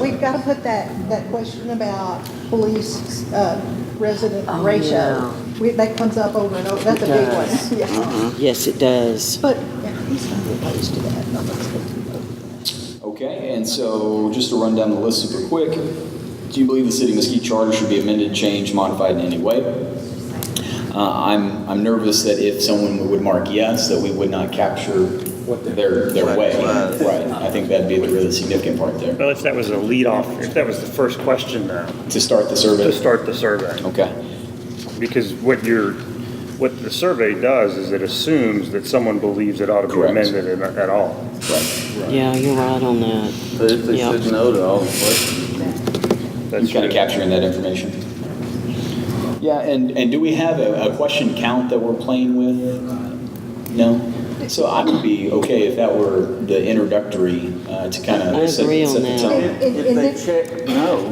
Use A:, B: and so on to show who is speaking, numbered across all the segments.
A: we've got to put that, that question about police uh, resident
B: Oh,
A: ratio.
B: yeah.
A: We- That comes up over and over, that's a big
B: Yes. Uh-huh.
A: one, yeah.
B: Yes, it does.
A: But yeah, he's not opposed to that, no one's opposed to that.
C: Okay, and so just to run down the list super quick, do you believe the city of Mesquite charter should be amended, changed, modified in any way? Uh, I'm, I'm nervous that if someone would mark yes, that we would not capture their, their way. Right, I think that'd be the really significant part there,
D: Well, if that was a lead-off, if that was the first question, though,
C: to start the
D: to
C: survey.
D: start the survey.
C: Okay,
D: Because what you're, what the survey does is it assumes that someone believes it ought to be
C: Correct.
D: amended in- at all.
C: right.
B: Yeah, you're right on that.
E: But if they
B: Yeah.
E: said no to all the questions,
D: That's
C: I'm kind of
D: true.
C: capturing that information. Yeah, and, and do we have a, a question count that we're playing with? No? So I would be okay if that were the introductory uh, to kind
B: I
C: of set,
B: agree on
C: set the
B: that.
C: tone.
A: And- and-
E: if
A: and
E: they
A: then-
E: check no,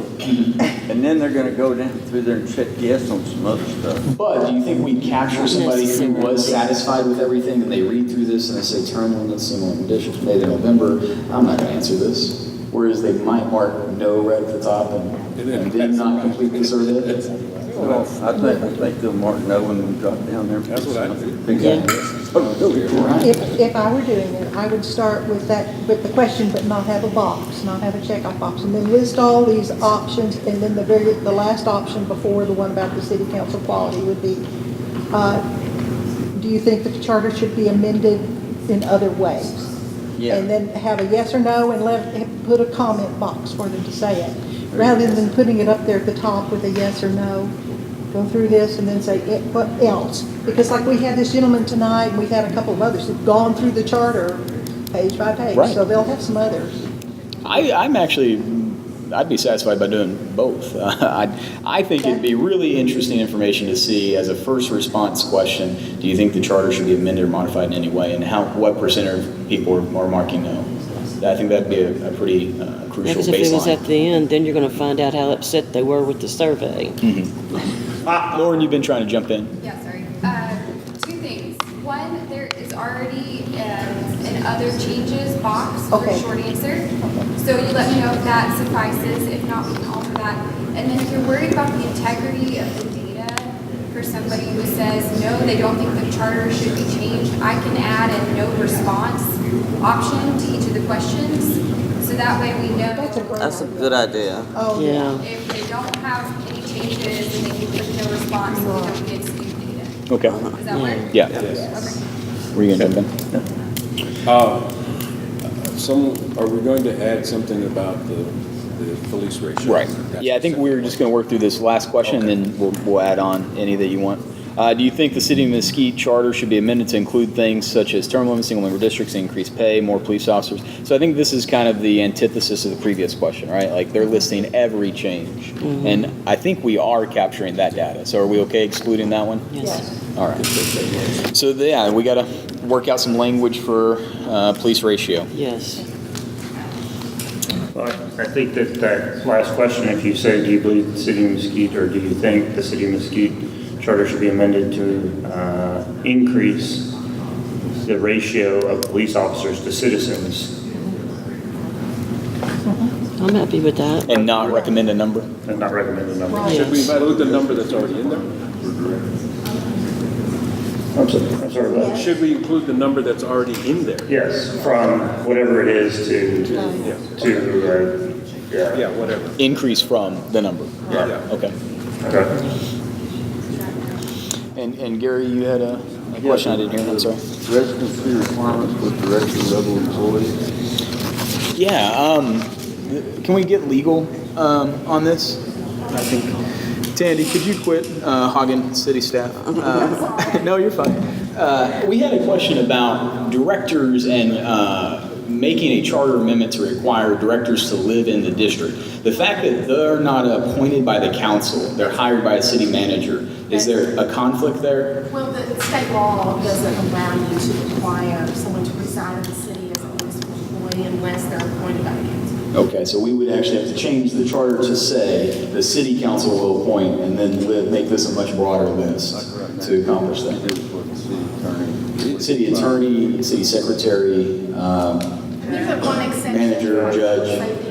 E: and then they're gonna go down through there and check yes on some other stuff.
C: But do you think we'd capture somebody who was satisfied with everything and they read through this and they say, term limits, similar conditions, made in November, I'm not going to answer this? Whereas they might mark no right at the top and and then not complete the survey?
E: So I think, I think they'll mark no when we drop down there. That's what I do.
A: If, if I were doing it, I would start with that, with the question, but not have a box, not have a checkoff box, and then list all these options, and then the very, the last option before the one about the city council quality would be, uh, do you think the charter should be amended in other ways?
E: Yeah.
A: And then have a yes or no and let, and put a comment box for them to say it, rather than putting it up there at the top with a yes or no. Go through this and then say, "Eh, what else? Because like we had this gentleman tonight, and we've had a couple of others who've gone through the charter page by page,
C: Right.
A: so they'll have some others.
C: I, I'm actually, I'd be satisfied by doing both. I, I think it'd be really interesting information to see as a first response question. Do you think the charter should be amended or modified in any way, and how what percent of people are, are marking no? I think that'd be a, a pretty uh, crucial
B: Because if it was
C: baseline.
B: at the end, then you're going to find out how upset they were with the survey.
C: Lauren, you've been trying to jump in.
F: Yeah, sorry. Uh, Two things. One, there is already um, an other changes box for
A: Okay.
F: short answer. So you let me know if that suffices. If not, we can alter that. And then if you're worried about the integrity of the data for somebody who says, no, they don't think the charter should be changed, I can add a no response option to each of the questions. So that way we know
A: That's a great
E: That's a
A: idea.
E: good idea.
A: Oh, yeah.
B: Yeah.
F: if they don't have any changes and they can put no response, we don't get new data.
C: Okay.
F: Does that work?
C: Yeah.
F: Okay.
C: Were you gonna jump in?
G: Uh, Some, are we going to add something about the, the police ratio? That's
C: Yeah, I think we're just going to work through this last question, and then we'll, we'll add on any that you want. Uh, do you think the city of Mesquite charter should be amended to include things such as term limits, single member districts, increased pay, more police officers? So I think this is kind of the antithesis of the previous question, right? Like they're listing every change, and I think we are capturing that data. So are we okay excluding that one?
B: Yes.
C: All right. So yeah, we got to work out some language for uh, police ratio.
B: Yes.
D: Well, I- I think that that last question, if you say, do you believe the city of Mesquite, or do you think the city of Mesquite charter should be amended to uh, increase the ratio of police officers to citizens,
B: I'm happy with that.
C: And not recommend a number?
D: and not recommend the number?
G: Should we
B: Yes.
G: invite, look at the number that's already in there?
D: I'm sorry, I'm sorry, what?
G: Should we include the number that's already in there?
D: Yes, from whatever it is to,
G: Yeah.
D: to, uh, yeah.
G: Yeah, whatever.
C: Increase from the number.
G: Yeah.
C: Okay.
D: Okay.
C: And, and Gary, you had a, a question I didn't hear, I'm sorry.
E: Residency requirements with director level employees.
C: Yeah, um, th- can we get legal, um, on this? I think, Tandy, could you quit, uh, hogging city staff? Uh, No, you're fine. Uh, we had a question about directors and, uh, making a charter amendment to require directors to live in the district. The fact that they're not appointed by the council, they're hired by a city manager, is there a conflict there?
H: Well, the state law doesn't allow you to require someone to reside in the city as a municipal employee unless they're appointed by the council.
C: Okay, so we would actually have to change the charter to say the city council will appoint and then li- make this a much broader list to accomplish that.
E: That's what the city attorney.
C: City attorney, city secretary, um,
H: There's a one exception.
C: Manager, judge.